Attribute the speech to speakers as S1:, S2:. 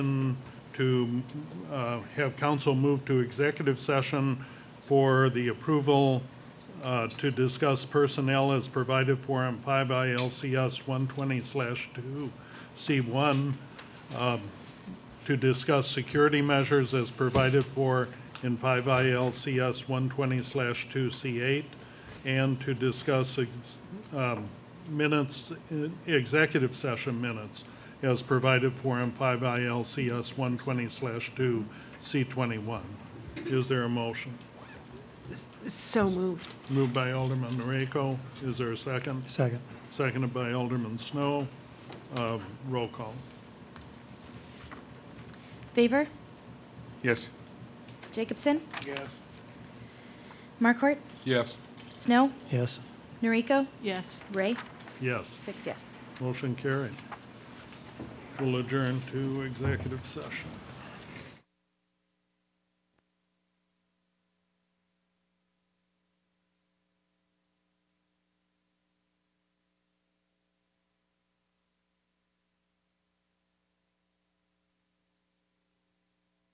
S1: to uh, have council move to executive session for the approval uh, to discuss personnel as provided for in 5 ILCS 120/2C1, um, to discuss security measures as provided for in 5 ILCS 120/2C8, and to discuss ex- um, minutes, eh, executive session minutes as provided for in 5 ILCS 120/2C21. Is there a motion?
S2: So moved.
S1: Moved by Alderman Noriko. Is there a second?
S3: Second.
S1: Seconded by Alderman Snow. Uh, Roll call.
S4: Favor?
S5: Yes.
S4: Jacobson?
S5: Yes.
S4: Markort?
S5: Yes.
S4: Snow?
S3: Yes.
S4: Noriko?
S2: Yes.
S4: Ray?
S1: Yes.
S4: Six yes.
S1: Motion carried. We'll adjourn to executive session.